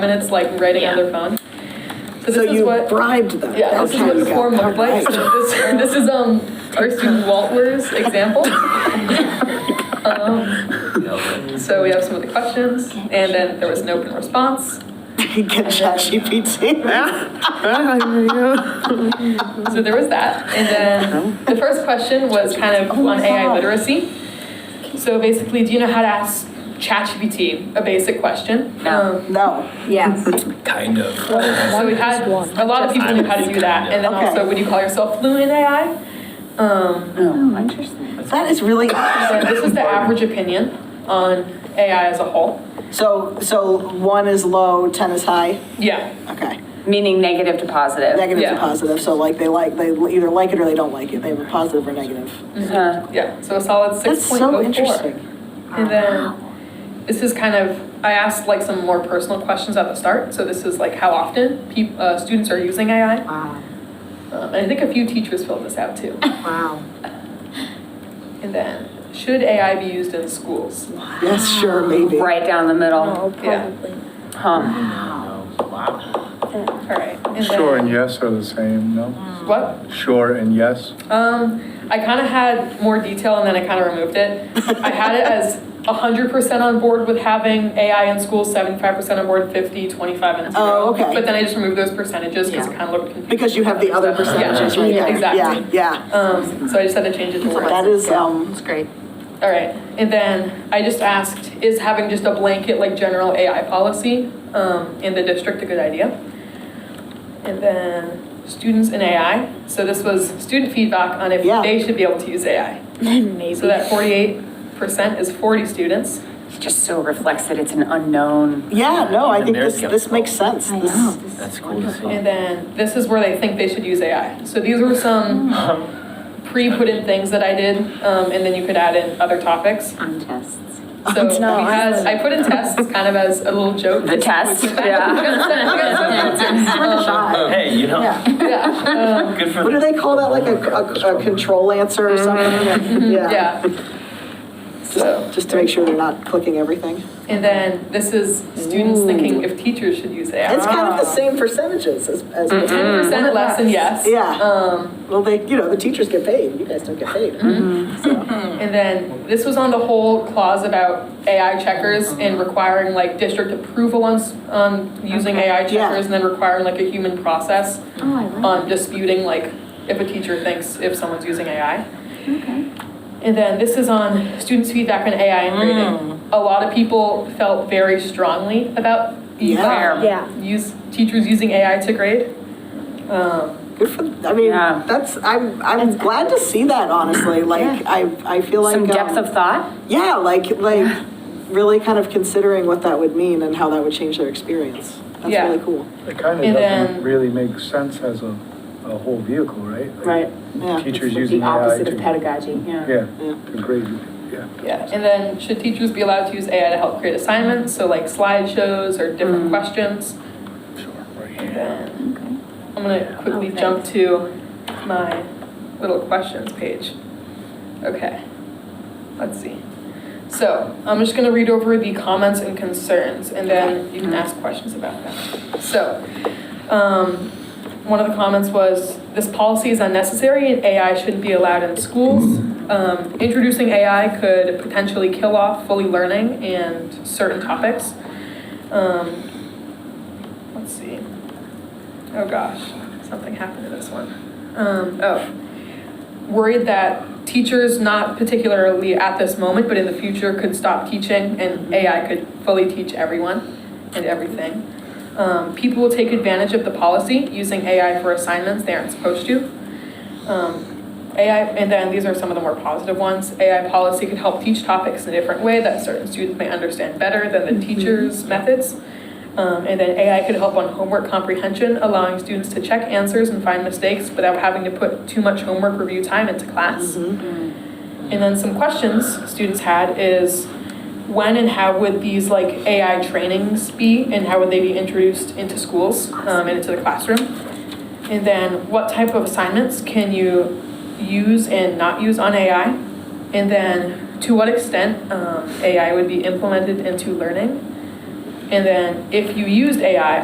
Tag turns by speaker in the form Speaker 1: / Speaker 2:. Speaker 1: minutes like writing on their phone. So
Speaker 2: So
Speaker 1: this is
Speaker 2: you
Speaker 1: what,
Speaker 2: bribed them?
Speaker 1: yeah, this is
Speaker 2: Okay,
Speaker 1: what the
Speaker 2: got
Speaker 1: form
Speaker 2: it.
Speaker 1: looked like.
Speaker 2: All right.
Speaker 1: So This, this is, um, our student Walters example. Um, So we have some of the questions, and then there was an open response.
Speaker 2: Get ChatGPT.
Speaker 1: So there was that. And then the first question was kind of
Speaker 2: Oh
Speaker 1: on AI literacy. So basically, do you know how to ask ChatGPT a basic question? Um,
Speaker 2: No.
Speaker 3: Yes.
Speaker 4: Kind of.
Speaker 1: So we had, a lot of people knew how to do that, and then
Speaker 2: Okay.
Speaker 1: also, would you call yourself fluent in AI? Um,
Speaker 3: Oh, interesting.
Speaker 2: That is really,
Speaker 1: so this is the average opinion on AI as a whole.
Speaker 2: so, so one is low, 10 is high?
Speaker 1: Yeah,
Speaker 2: Okay.
Speaker 3: Meaning negative to positive.
Speaker 2: Negative to
Speaker 1: Yeah.
Speaker 2: positive, so like they like, they either like it or they don't like it. They have a positive or negative.
Speaker 3: Huh.
Speaker 1: yeah, so a solid
Speaker 2: That's
Speaker 1: six point
Speaker 2: so
Speaker 1: oh four.
Speaker 2: interesting.
Speaker 1: And then, this is kind of, I asked like some more personal questions at the start, so this is like how often peop, uh, students are using AI.
Speaker 5: Wow,
Speaker 1: Um, and I think a few teachers filled this out too.
Speaker 5: wow.
Speaker 1: And then, should AI be used in schools?
Speaker 2: Yes, sure, maybe.
Speaker 3: Right down the middle.
Speaker 1: Yeah,
Speaker 3: Huh.
Speaker 1: all right. And then- Mm.
Speaker 6: Sure and yes are the same, no?
Speaker 1: What?
Speaker 6: Sure and yes?
Speaker 1: Um, I kind of had more detail and then I kind of removed it. I had it as 100% on board with having AI in school, 75% on board, 50, 25, and 0.
Speaker 2: Oh, okay.
Speaker 1: But then I just removed those percentages because it
Speaker 5: Yeah.
Speaker 1: kind of looked confusing.
Speaker 2: Because you have the other
Speaker 1: stuff. Yeah.
Speaker 2: percentages right
Speaker 1: Yeah,
Speaker 2: there.
Speaker 1: exactly.
Speaker 2: Yeah,
Speaker 1: Um, so I just had to change it to
Speaker 2: yeah.
Speaker 1: words.
Speaker 2: That is, um,
Speaker 5: It's great.
Speaker 1: All right. And then I just asked, is having just a blanket like general AI policy um, in the district a good idea? And then students in AI. So this was student feedback on if
Speaker 2: Yeah.
Speaker 1: they should be able to use AI. So that forty-eight percent is forty students.
Speaker 3: It Just so reflects that it's an unknown.
Speaker 2: yeah, no, I
Speaker 4: And
Speaker 2: think
Speaker 4: they're
Speaker 2: this, this
Speaker 4: skeptical.
Speaker 2: makes sense.
Speaker 3: I
Speaker 2: This-
Speaker 3: know.
Speaker 4: That's cool to see.
Speaker 1: And then this is where they think they should use AI. So these were some pre-put in things that I did, um, and then you could add in other topics.
Speaker 3: On tests.
Speaker 1: So
Speaker 2: Oh,
Speaker 1: we
Speaker 2: no.
Speaker 1: had, I put in tests kind of as a little joke.
Speaker 3: The test,
Speaker 1: We got some- we got some answers. Um,
Speaker 4: Hey, you know,
Speaker 1: yeah, um,
Speaker 4: good for
Speaker 2: What do
Speaker 4: them.
Speaker 2: they call that, like a, a, a control answer or something?
Speaker 1: Mm-hmm. Yeah. So.
Speaker 2: Just to make sure they're not clicking everything.
Speaker 1: And then this is students thinking if teachers should use AI.
Speaker 2: It's kind of the same percentages as, as.
Speaker 1: Ten percent less than yes.
Speaker 2: Yeah.
Speaker 1: Um,
Speaker 2: Well, they, you know, the teachers get paid, you guys don't get paid.
Speaker 1: and then this was on the whole clause about AI checkers and requiring like district approval on, s- on using AI
Speaker 2: Yeah.
Speaker 1: checkers and then requiring like a human process
Speaker 3: Oh, I
Speaker 1: on disputing like if a teacher thinks if someone's using AI.
Speaker 3: Okay.
Speaker 1: And then this is on students' feedback on AI and
Speaker 3: Mm.
Speaker 1: grading. A lot of people felt very strongly about the
Speaker 2: Yeah.
Speaker 1: um,
Speaker 3: Yeah.
Speaker 1: use teachers using AI to grade. Um,
Speaker 2: Good for, I mean,
Speaker 3: Yeah.
Speaker 2: that's, I'm, I'm glad to see that, honestly, like, I, I feel like.
Speaker 3: Some depth
Speaker 2: um,
Speaker 3: of thought?
Speaker 2: Yeah, like, like, really kind of considering what that would mean and how that would change their experience. That's
Speaker 1: Yeah.
Speaker 2: really cool.
Speaker 6: It kind
Speaker 1: And
Speaker 6: of
Speaker 1: then-
Speaker 6: doesn't really make sense as a, a whole vehicle, right? Like,
Speaker 3: Right.
Speaker 2: Yeah.
Speaker 6: Teachers using AI to.
Speaker 3: pedagogy,
Speaker 6: Yeah,
Speaker 2: Yeah.
Speaker 6: to grade, yeah.
Speaker 1: yeah. And then should teachers be allowed to use AI to help create assignments? So like slideshows or different questions.
Speaker 6: Sure, right
Speaker 1: And
Speaker 6: here.
Speaker 1: then I'm gonna quickly
Speaker 3: Okay.
Speaker 1: jump to my little questions page. Okay, let's see. So I'm just gonna read over the comments and concerns, and then you can ask questions about them. So, um, one of the comments was, this policy is unnecessary and AI shouldn't be allowed in schools. Um, introducing AI could potentially kill off fully learning and certain topics. Um, let's see. Oh gosh, something happened to this one. Um, oh, worried that teachers, not particularly at this moment, but in the future, could stop teaching and AI could fully teach everyone and everything. Um, people will take advantage of the policy using AI for assignments they aren't supposed to. Um, AI, and then these are some of the more positive ones. AI policy could help teach topics in a different way that certain students may understand better than the teacher's methods. Um, and then AI could help on homework comprehension, allowing students to check answers and find mistakes without having to put too much homework review time into class. And then some questions students had is when and how would these like AI trainings be and how would they be introduced into schools um, and into the classroom? And then what type of assignments can you use and not use on AI? And then to what extent um, AI would be implemented into learning? And then if you used AI,